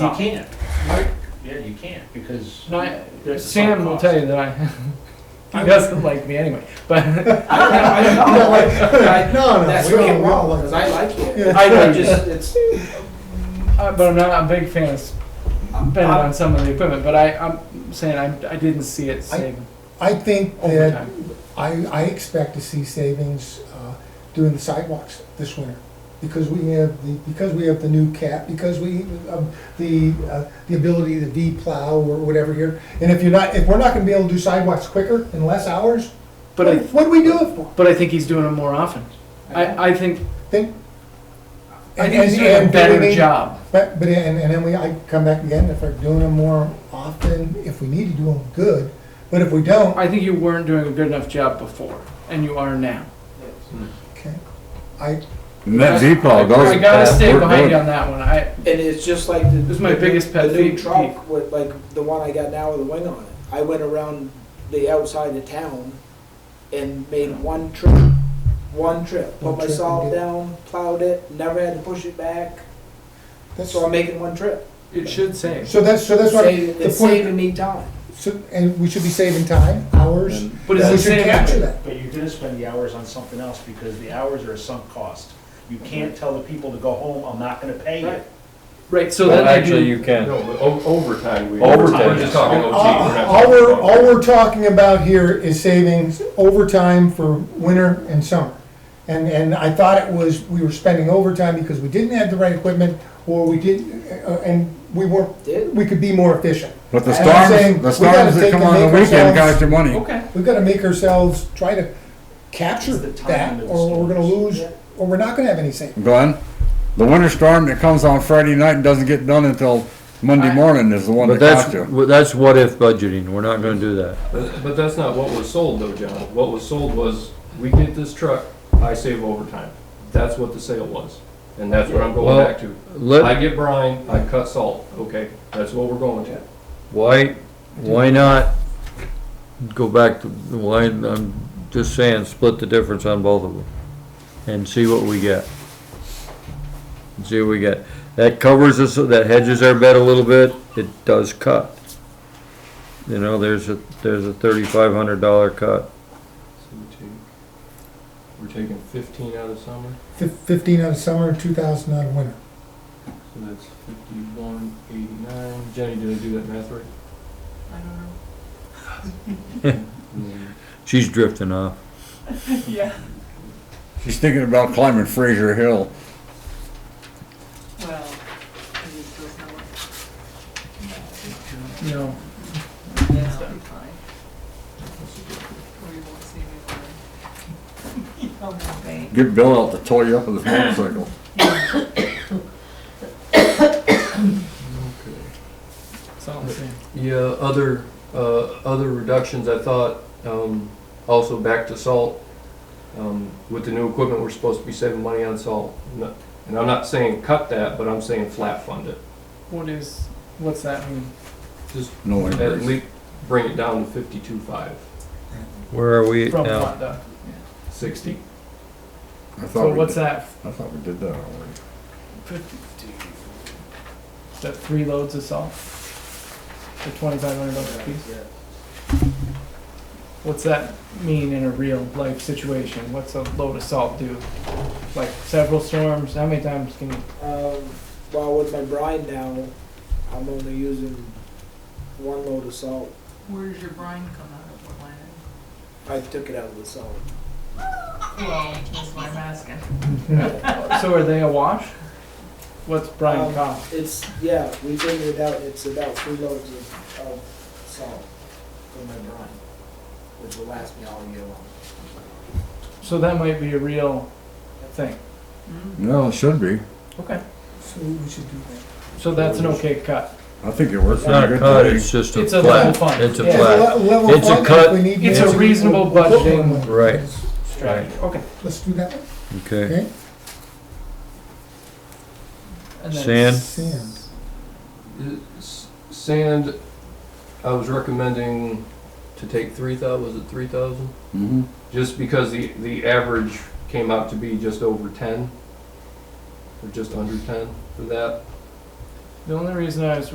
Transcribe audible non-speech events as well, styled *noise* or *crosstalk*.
You can't. Right. Yeah, you can't, because. No, I- There's a Sam sunk will cost. tell you that I, *laughs* he doesn't like me anyway, but *laughs* uh, I don't, I don't know, like, No, no, that's we really don't wrong, want because I like it. Yeah. I I know. just, it's, uh, but I'm not a big fan of spending I'm- on some of the equipment. But I, I'm saying I, I didn't see it saving Uh, I think that, overtime. I, I expect to see savings, uh, doing the sidewalks this winter. Because we have the, because we have the new cap, because we, um, the, uh, the ability to de-plow or whatever here. And if you're not, if we're not gonna be able to do sidewalks quicker in less hours, But what, I, what do we do it for? but I think he's doing it more often. I, I think Think. I and- think he's and- doing a and do we better need- job. But, but, and, and then we, I come back again, if we're doing them more often, if we need to do them, good. But if we don't, I think you weren't doing a good enough job before, and you are now. okay, I, And that I, Oh, Z-Plow goes. I gotta stay we're behind good. you on that one. I, and it's just like. the- This is my the new- biggest pet The new peeve. truck with, like, the one I got now with a wing on it, I went around the outside of town and made one trip, one trip, One put my trip and salt get- down, plowed it, never had to push it back, that's, so I'm making one trip. it should save, so that's, so that's what, Save- the It's point, saving me time. so- and we should be saving time, hours. but it's We the should capture same. that. But you're gonna spend the hours on something else, because the hours are a sunk cost. You can't tell the people to go home, I'm not gonna pay you. Right. Right. So Well, then I actually, do. you can. No, but o- overtime, we. Overtime. We're just talking OT. All we're not all we're, talking- all we're talking about here is savings overtime for winter and summer. And, and I thought it was, we were spending overtime because we didn't have the right equipment, or we didn't, uh, and we weren't, Did? we could be more efficient. But the And I'm saying, storms, the we gotta storms take that come and on the make weekend ourselves- cost you money. Okay. We've gotta make ourselves try to capture It's the time that, of the or we're gonna storms. lose, or we're not gonna have any savings. Glenn, the winter storm that comes on Friday night and doesn't get done until Monday I- morning is the one But that that's, cost you. well, that's what if budgeting, we're not gonna do that. But but that's not what was sold though, John. What was sold was, we get this truck, I save overtime. That's what the sale was. And that's what I'm going Well, back to. I Let, get brine, I cut salt, okay? That's what we're going to. why, why not go back to, why, I'm just saying, split the difference on both of them and see what we get. See what we get. That covers us, that hedges our bet a little bit, it does cut. You know, there's a, there's a thirty-five hundred dollar cut. So we take- We're taking fifteen out of summer, Fif- Fifteen out of summer, two thousand out of winter. so that's fifty-one eighty-nine. Jenny, did I do that math right? I don't know. She's drifting off. She's thinking about climbing Fraser Hill. Well, it just goes nowhere. You know. Yeah, I'll be fine. Or you won't see me for- *laughs* You don't want me. Get Bill out to tow you up with his motorcycle. Okay. That's all I'm saying. Yeah, other, uh, other reductions, I thought, um, also back to salt. Um, with the new equipment, we're supposed to be saving money on salt. No- And I'm not saying cut that, but I'm saying flat fund it. What is? What's that mean? Just No at increase. least bring it down to fifty-two five, Where are we From now? what though? sixty. I So thought we what's did, that? I thought we did that already. Is that three loads of salt? For twenty-five hundred bucks a piece? What's that mean in a real life situation? What's a load of salt do? Like several storms, how many times can you? Um, well, with my brine now, I'm only using one load of salt. Where does your brine come out of, Orlando? I took it out of the salt. Well, that's why I'm asking. So are they awash? What's Brian Um, cost? It's, yeah, we figured it out, it's about three loads of, of salt for my brine, which will last me all year long. So that might be a real thing. Mm. No, it should be. Okay. So we should do that. So that's an okay cut. I think it works It's out not a good cut, today. it's just a It's a flat, level fund. it's a Yeah. flat. le- level It's a funded, cut. we need It's more. a reasonable We'll- we'll put one budgeting. more. Right. Strategy. Okay. Let's do that, Okay, okay? And then Sand? s- Sand. S- Sand, I was recommending to take three thou, was it three thousand? Mhm. just because the, the average came out to be just over ten, or just under ten for that. The only reason I was